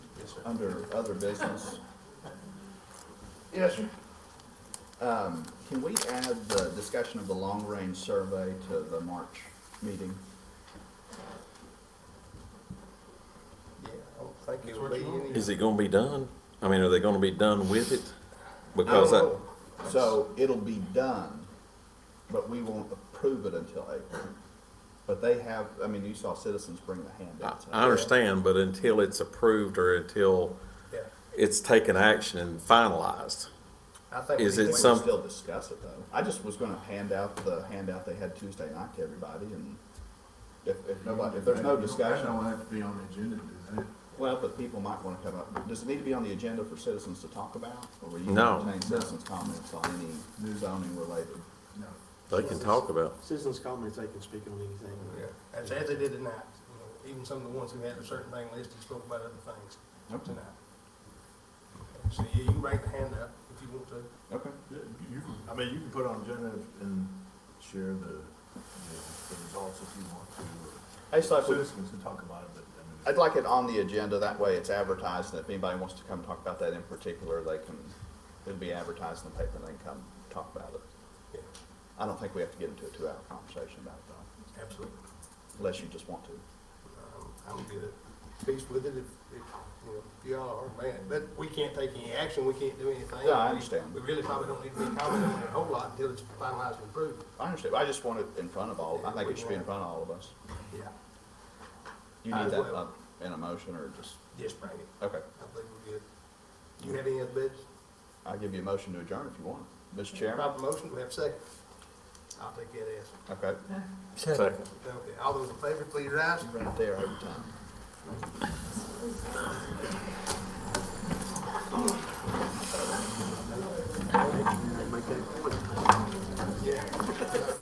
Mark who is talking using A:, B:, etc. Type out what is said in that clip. A: Yes, sir.
B: under other business.
A: Yes, sir.
B: Um, Can we add the discussion of the long-range survey to the March meeting?
C: Yeah, I don't think
A: That's
C: it'll
A: what
C: be
A: you want.
C: any.
D: Is it gonna be done? I mean, are they gonna be done with it? Because I,
B: Oh, So it'll be done, but we won't approve it until April. But they have, I mean, you saw citizens bring the
D: I
B: handouts.
D: I understand, but until it's approved or until
C: Yeah,
D: it's taken action and finalized.
C: I think.
D: Is
C: we
B: We
C: can-
D: it
B: can
D: some-
B: still discuss it though. I just was gonna hand out the handout they had Tuesday night to everybody and if, if nobody, if there's no discussion.
A: That don't have to be on the agenda, does it?
B: Well, but people might want to come up, does it need to be on the agenda for citizens to talk about? Or will you
D: No.
B: entertain citizens' comments on any new zoning related?
A: No.
D: They can talk about.
E: Citizens' comments, they can speak on anything.
C: Yeah, That's as they did tonight, you know, even some of the ones who had a certain thing listed spoke about other things
B: Okay,
C: tonight. So yeah, you can write the hand up if you want to.
B: okay.
A: You can, I mean, you can put on agenda and share the, the the results if you want to.
B: I just
A: or
B: thought, we-
A: Citizens can talk about it, but, I
B: I'd
A: mean,
B: like it on the agenda, that way it's advertised, and if anybody wants to come talk about that in particular, they can, it'll be advertised in the paper, and they can come talk about it.
C: Yeah,
B: I don't think we have to get into a two-hour conversation about it though,
C: absolutely.
B: unless you just want to.
C: Um, I'm good at peace with it if, if, you know, if y'all are mad. But we can't take any action, we can't do anything.
B: Yeah, I understand.
C: We really probably don't need to be commenting on it a whole lot until it's finalized and approved.
B: I understand, I just want it in front of all, I think it should be in front of all of us.
C: Yeah,
B: Do you need that uh, in a motion, or just,
C: just bring it.
B: okay.
C: I think we're good. Do you have any other bids?
B: I'll give you a motion to adjourn if you want. Mr. Chairman?
C: Proper motion, do we have a second? I'll take that as.
B: Okay.
D: Second.
C: Okay, all those in favor, please rise.
B: Right there every time.